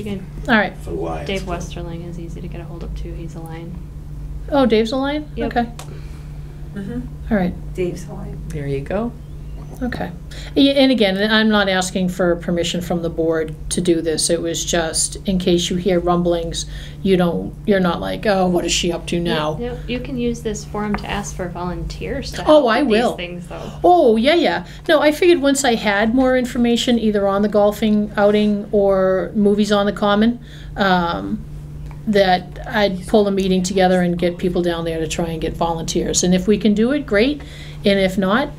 You can, All right. for Lions. Dave Westerling is easy to get a hold of too. He's a lion. Oh, Dave's a lion? Yep. Okay. Mhm. All right. Dave's Hawaiian. There you go. Okay. Yeah, And again, I'm not asking for permission from the board to do this. It was just in case you hear rumblings, you don't, you're not like, oh, what is she up to now? Yep, you can use this forum to ask for volunteers to Oh, help I with will. these things though. Oh, yeah, yeah. No, I figured once I had more information, either on the golfing outing or movies on the common, um, that I'd pull a meeting together and get people down there to try and get volunteers. And if we can do it, great. And if not,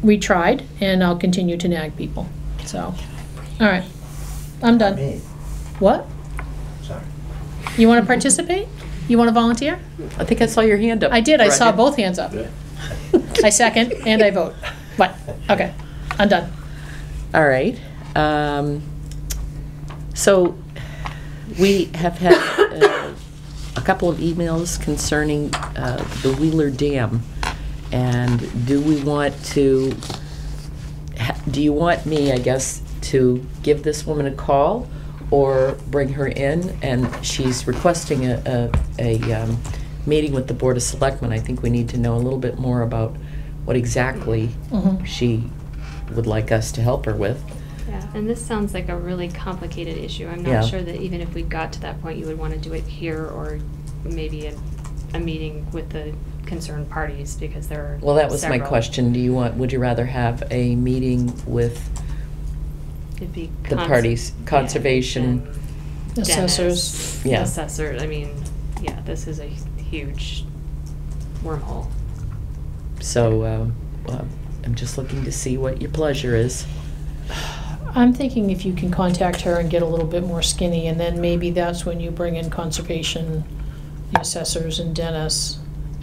we tried, and I'll continue to nag people. So, all right. I'm done. Me, What? sorry. You want to participate? You want to volunteer? I think I saw your hand up. I did. I saw Brenda. both hands up. I second and I vote. What? Okay. I'm done. All right. Um, So we have had uh, a couple of emails concerning uh, the Wheeler Dam. And do we want to, ha- do you want me, I guess, to give this woman a call or bring her in? And she's requesting a, a, a um, meeting with the Board of Selectmen. I think we need to know a little bit more about what exactly Mhm. she would like us to help her with. Yeah, and this sounds like a really complicated issue. I'm Yeah. not sure that even if we got to that point, you would want to do it here or maybe a, a meeting with the concerned parties because there are Well, that was my several. question. Do you want, would you rather have a meeting with It'd be the cons- parties, yeah, conservation? and- Assessors. Dennis, Yeah. Assessor, I mean, yeah, this is a huge wormhole. So, um, well, I'm just looking to see what your pleasure is. I'm thinking if you can contact her and get a little bit more skinny, and then maybe that's when you bring in conservation, the assessors, and Dennis,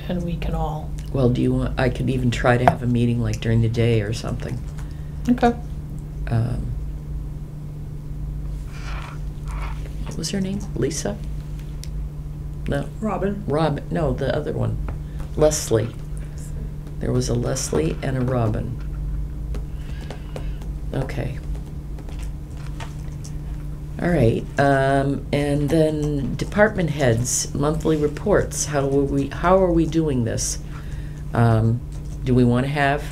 and we can all. Well, do you want, I could even try to have a meeting like during the day or something. Okay. Um, What was her name? Lisa? No, Robin. Rob, no, the other one. Leslie. There was a Leslie and a Robin. Okay. All right, um, and then department heads, monthly reports, how are we, how are we doing this? Um, do we wanna have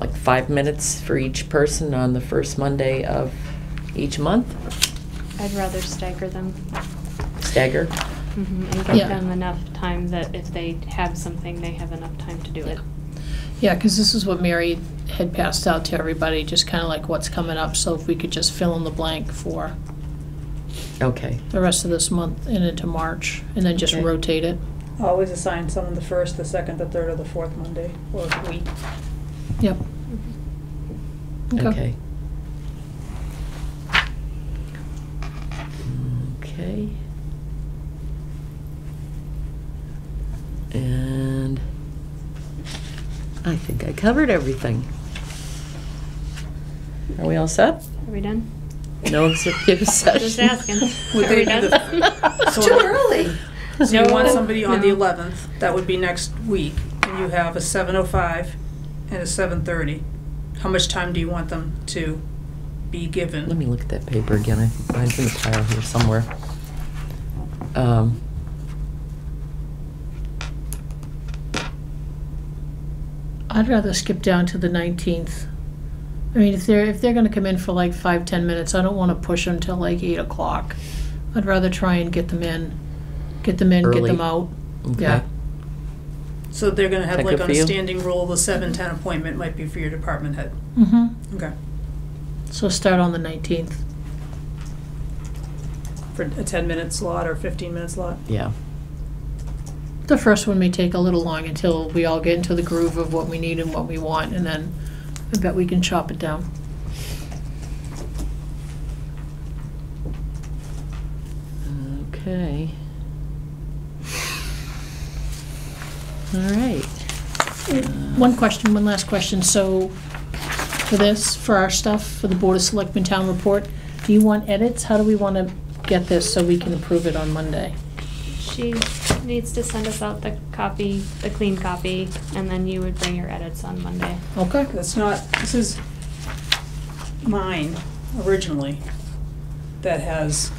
like five minutes for each person on the first Monday of each month? I'd rather stagger them Stagger? mhm, and give Yeah. them enough time that if they have something, they have enough time to do it. Yeah, because this is what Mary had passed out to everybody, just kind of like what's coming up. So if we could just fill in the blank for Okay, the rest of this month and into March, and then just Okay. rotate it. Always assign someone the first, the second, the third, or the fourth Monday, or week. Yep. Okay. Okay. And I think I covered everything. Are we all set? Are we done? No executive session? Just asking. Would Are we they do done? It's too early. So you want No, somebody on the no. 11th, that would be next week, and you have a 7:05 and a 7:30. How much time do you want them to be Let given? me look at that paper again. I- Mine's in the pile here somewhere. Um, I'd rather skip down to the 19th. I mean, if they're, if they're gonna come in for like five, 10 minutes, I don't wanna push them till like 8 o'clock. I'd rather try and get them in, get them in, get Early. them out. okay. Yeah. So they're gonna have That like good on for a you? standing rule, the 7:10 appointment might be for your department head. Mm-hmm. Okay, So start on the 19th. for a 10-minute slot or 15-minute slot. Yeah. The first one may take a little long until we all get into the groove of what we need and what we want, and then I bet we can chop it down. Okay. All right. One question, one last question. So for this, for our stuff, for the Board of Selectmen Town Report, do you want edits? How do we want to get this so we can approve it on Monday? She needs to send us out the copy, the clean copy, and then you would bring your edits on Monday. Okay? That's not, this is mine originally that has